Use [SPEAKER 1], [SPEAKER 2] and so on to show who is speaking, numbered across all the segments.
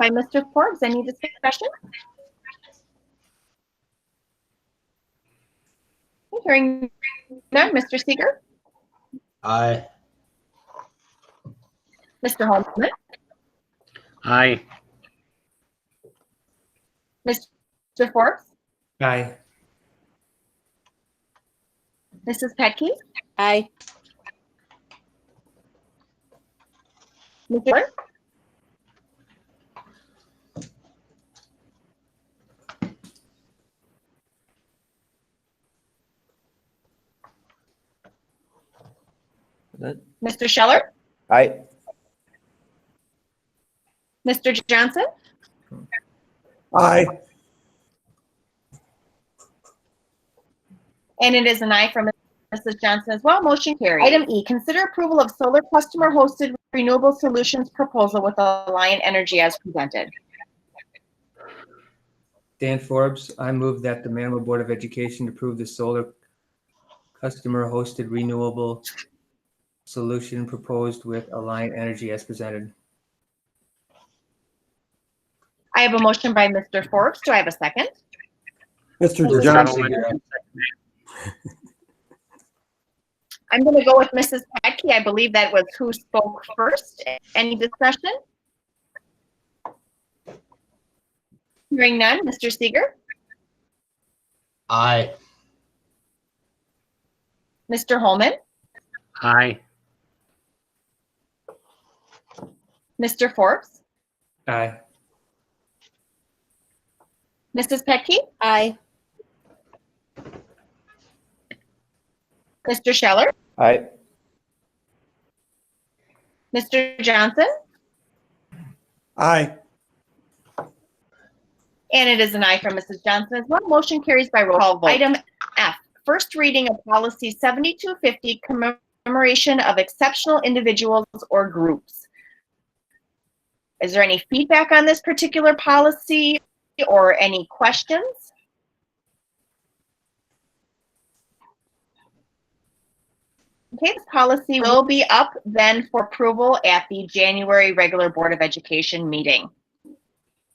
[SPEAKER 1] by Mr. Forbes. Any discussion? Hearing none, Mr. Seeger,
[SPEAKER 2] Aye.
[SPEAKER 1] Mr. Holman,
[SPEAKER 3] Aye.
[SPEAKER 1] Mr. Forbes,
[SPEAKER 4] Aye.
[SPEAKER 1] Mrs. Petke,
[SPEAKER 5] Aye.
[SPEAKER 1] Mr. Ford,
[SPEAKER 4] That-
[SPEAKER 1] Mr. Scheller,
[SPEAKER 2] Aye.
[SPEAKER 1] Mr. Johnson,
[SPEAKER 2] Aye.
[SPEAKER 1] And it is an aye from Mrs. Johnson as well. Motion carried. Item E, consider approval of solar customer hosted renewable solutions proposal with Alliant Energy as presented.
[SPEAKER 4] Dan Forbes, I move that the Manawha Board of Education approve the solar customer-hosted renewable solution proposed with Alliant Energy as presented.
[SPEAKER 1] I have a motion by Mr. Forbes. Do I have a second?
[SPEAKER 2] Mr.
[SPEAKER 1] Mr.
[SPEAKER 2] Johnson.
[SPEAKER 1] I'm going to go with Mrs. Petke. I believe that was who spoke first. Any discussion? Hearing none. Mr. Seeger,
[SPEAKER 2] Aye.
[SPEAKER 1] Mr. Holman,
[SPEAKER 3] Aye.
[SPEAKER 1] Mr. Forbes,
[SPEAKER 4] Aye.
[SPEAKER 1] Mrs. Petke,
[SPEAKER 5] Aye.
[SPEAKER 1] Mr. Scheller,
[SPEAKER 2] Aye.
[SPEAKER 1] Mr. Johnson,
[SPEAKER 2] Aye.
[SPEAKER 1] And it is an aye from Mrs. Johnson as well. Motion carries by roll call vote. Item F, first reading of policy 7250, commemoration of exceptional individuals or groups. Is there any feedback on this particular policy or any questions? Okay, this policy will be up then for approval at the January regular Board of Education meeting.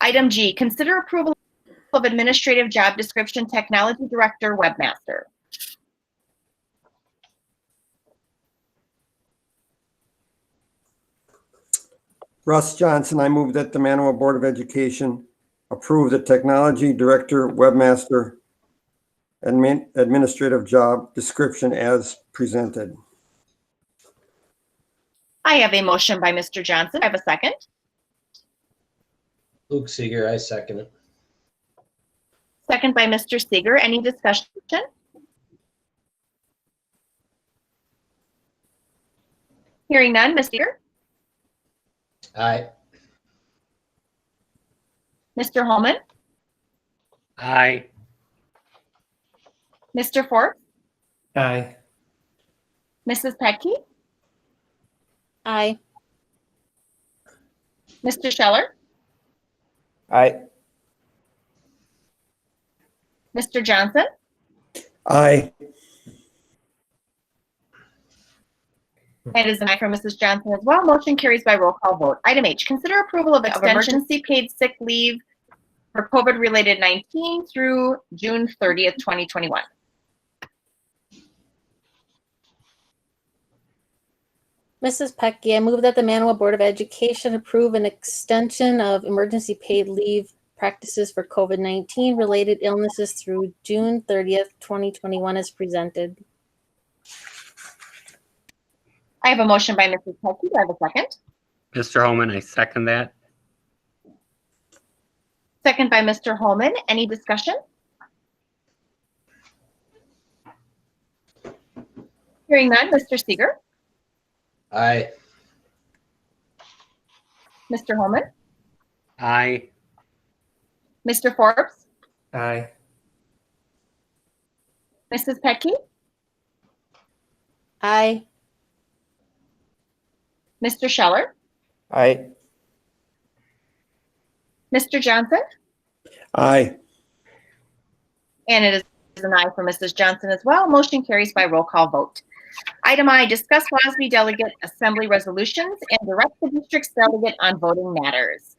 [SPEAKER 1] Item G, consider approval of administrative job description, technology director, webmaster.
[SPEAKER 6] Russ Johnson, I move that the Manawha Board of Education approve the Technology Director Webmaster admin- Administrative Job Description as presented.
[SPEAKER 1] I have a motion by Mr. Johnson. I have a second.
[SPEAKER 2] Luke Seeger, I second it.
[SPEAKER 1] Second by Mr. Seeger. Any discussion? Hearing none, Mr. Seeger,
[SPEAKER 2] Aye.
[SPEAKER 1] Mr. Holman,
[SPEAKER 3] Aye.
[SPEAKER 1] Mr. Forbes,
[SPEAKER 4] Aye.
[SPEAKER 1] Mrs. Petke,
[SPEAKER 5] Aye.
[SPEAKER 1] Mr. Scheller,
[SPEAKER 2] Aye.
[SPEAKER 1] Mr. Johnson,
[SPEAKER 6] Aye.
[SPEAKER 1] And it is an aye from Mrs. Johnson as well. Motion carries by roll call vote. Item H, consider approval of extension paid sick leave for COVID-related 19 through June 30th, 2021.
[SPEAKER 5] Mrs. Pecky, I move that the Manawha Board of Education approve an extension of emergency paid leave practices for COVID-19 related illnesses through June 30th, 2021 as presented.
[SPEAKER 1] I have a motion by Mrs. Pelkey. Do I have a second?
[SPEAKER 3] Mr. Holman, I second that.
[SPEAKER 1] Second by Mr. Holman. Any discussion? Hearing none, Mr. Seeger,
[SPEAKER 2] Aye.
[SPEAKER 1] Mr. Holman,
[SPEAKER 3] Aye.
[SPEAKER 1] Mr. Forbes,
[SPEAKER 4] Aye.
[SPEAKER 1] Mrs. Petke,
[SPEAKER 5] Aye.
[SPEAKER 1] Mr. Scheller,
[SPEAKER 2] Aye.
[SPEAKER 1] Mr. Johnson,
[SPEAKER 6] Aye.
[SPEAKER 1] And it is an aye for Mrs. Johnson as well. Motion carries by roll call vote. Item I, discuss WASB delegate assembly resolutions and direct the district's delegate on voting matters.